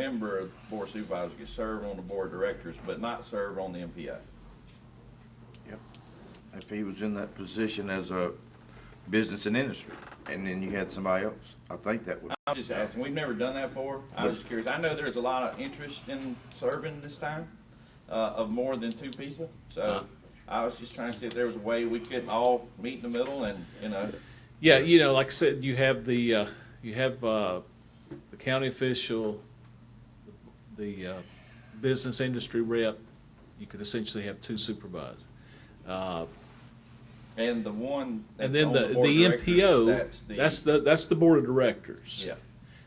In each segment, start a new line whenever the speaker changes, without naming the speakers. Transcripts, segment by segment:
member of the board of supervisors can serve on the board of directors, but not serve on the MPO.
Yep. If he was in that position as a business and industry, and then you had somebody else, I think that would,
I'm just asking, we've never done that before. I'm just curious. I know there's a lot of interest in serving this time, uh, of more than two people. So I was just trying to see if there was a way we could all meet in the middle and, you know,
Yeah, you know, like I said, you have the, uh, you have, uh, the county official, the, uh, business industry rep, you could essentially have two supervisors. Uh,
and the one. that's
and then
on
the,
board of
the
directors,
MPO, that's the, that's the board of directors.
Yeah.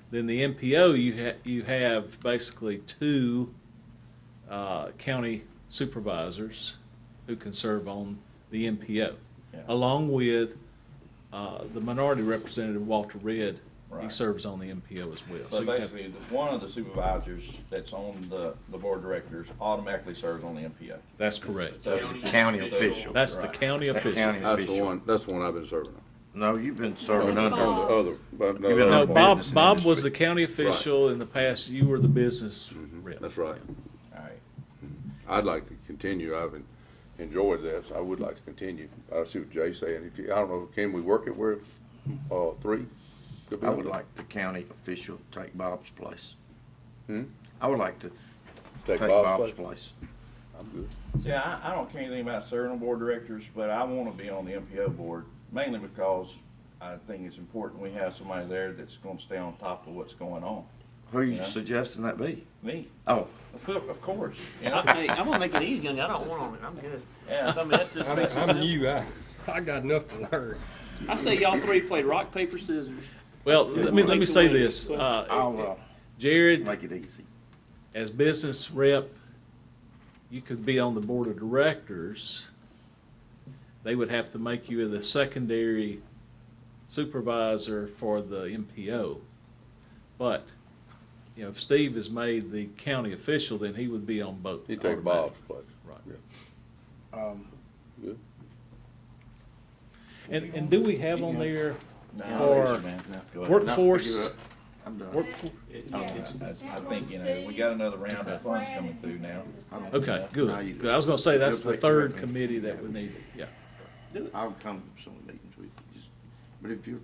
Then the MPO, you ha, you have basically two, uh, county supervisors who can serve on the MPO.
Yeah.
Along with, uh, the minority representative Walter Red, he
Right.
serves on the MPO as well. So
So
you have-
basically, the- one of the supervisors that's on the, the board of directors automatically serves on the MPO.
That's correct.
So
that's a county official.
That's the
Right.
county
That
official.
county
That's the
official.
one, that's the one I've been serving on.
No, you've been serving
No,
under,
on the Other, but no,
You've been
No,
on
that's-
Bob,
Business and
Bob was
industry.
the county official in the past, you were the business rep.
Mm-hmm.
that's right.
All right.
I'd like to continue. I've en- enjoyed this. I would like to continue. I see what Jay's saying. If you, I don't know, can we work it where, uh, three? Could be
I would
up
like the county official to take Bob's place.
Hmm?
I would like to
to
take Bob's place.
I'm good.
See, I, I don't care anything about serving on board of directors, but I want to be on the MPO board, mainly because I think it's important we have somebody there that's going to stay on top of what's going on.
Who are you
Yeah.
suggesting that be?
Me,
Oh,
of course, of course. you know?
Hey, I'm gonna make it easy on you. I don't want on it. I'm good.
Yeah.
So, I mean, that's just
I'm,
makes it
I'm
simple.
new. I, I got enough to learn.
I say y'all three played rock paper scissors.
Well, let me, let me say this,
I'll,
uh,
uh,
Jared,
make it easy.
as business rep, you could be on the board of directors. They would have to make you the secondary supervisor for the MPO. But, you know, if Steve is made the county official, then he would be on both.
You take Bob's place.
Right.
Um,
Good.
And, and do we have on there
No,
for
listen, man, no, go ahead.
No, I
workforce?
give I'm done.
workforce-
It's- it's- I think, you know, we got another round of funds coming through now.
Okay, good.
No, you-
Good. I was gonna say, that's
You'll
the
take care of
third
it.
committee that we need, yeah.
I'll come to some meetings with you, just, but if you,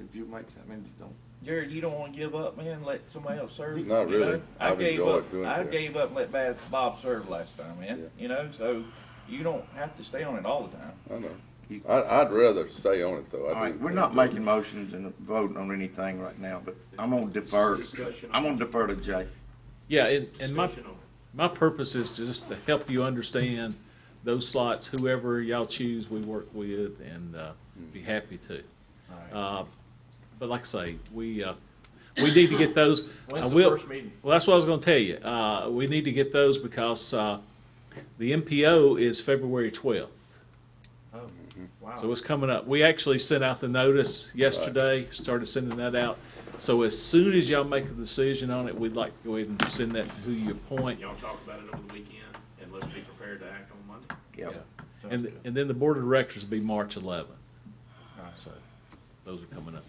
if you make, I mean, don't
Jared, you don't want to give up, man, let somebody else serve?
Not
you know?
really.
I
I've
gave
enjoyed
up-
doing
I
that.
gave up and let Bad- Bob serve last time, man,
Yeah.
you know, so you don't have to stay on it all the time.
I know. I, I'd rather stay on it though. I
All right,
do.
we're not making motions and voting on anything right now, but I'm gonna defer,
discussion.
I'm gonna defer to Jay.
Yeah, and, and my,
Discussion on it.
my purpose is to just to help you understand those slots, whoever y'all choose, we work with and, uh,
Mm.
be happy to. Uh, But like I say, we, uh, we need to get those. I
When's the
will-
first meeting?
Well, that's what I was gonna tell you. Uh, we need to get those because, uh, the MPO is February twelfth.
Oh,
Mm-hmm.
wow.
So it's coming up. We actually sent out the notice yesterday, started sending that out. So as soon as y'all make a decision on it, we'd like to go ahead and send that to who you appoint.
Y'all talk about it over the weekend, and let's be prepared to act on Monday.
Yeah,
And, and then the board of directors will be March eleventh. So those are coming up.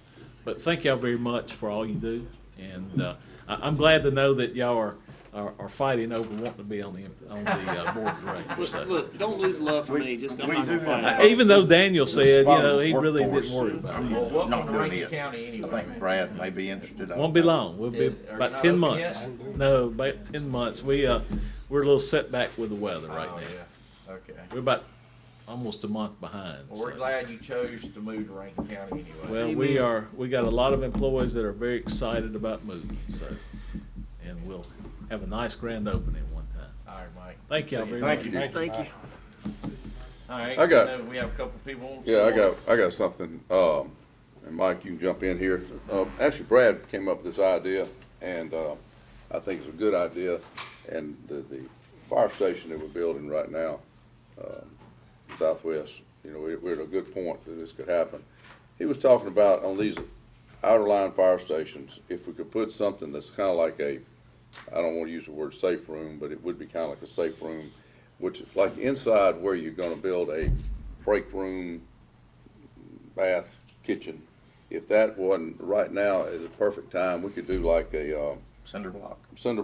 But thank y'all very much for all you do. And, uh, I, I'm glad to know that y'all are, are, are fighting over wanting to be on the, on the uh, board of directors.
Look,
So,
look, don't lose love for
We-
me. Just I'm
we
not
do
gonna fight.
have-
it.
Even though Daniel said, you
Spot
know, he
on
really didn't
workforce.
worry about it.
Well,
Not
welcome to
doing
Rankin
it.
County anyway.
I think Brad may be interested. Uh, I don't
Won't be
know.
long. We'll be
Is- are you
about
not
ten
open
months. No, about ten months. We, uh, we're a little setback with the weather right
Oh,
now.
yeah. Okay.
We're about almost a month behind.
Well, we're
so.
glad you chose to move to Rankin County anyway.
Well, we are, we got a lot of employees that are very excited about moving, so, and we'll have a nice grand opening one time.
All right, Mike.
Thank y'all
See
very
Thank
much.
you.
Thank you.
All right.
I got-
I know We have a couple people.
Yeah, I got, I got something, um, and Mike, you can jump in here. Uh, actually, Brad came up with this idea, and, uh, I think it's a good idea. And the, the fire station that we're building right now, um, southwest, you know, we're, we're at a good point that this could happen. He was talking about on these outer line fire stations, if we could put something that's kinda like a, I don't wanna use the word safe room, but it would be kinda like a safe room, which is like inside where you're gonna build a break room, bath, kitchen. If that wasn't, right now is the perfect time, we could do like a, uh,
cinder block.
cinder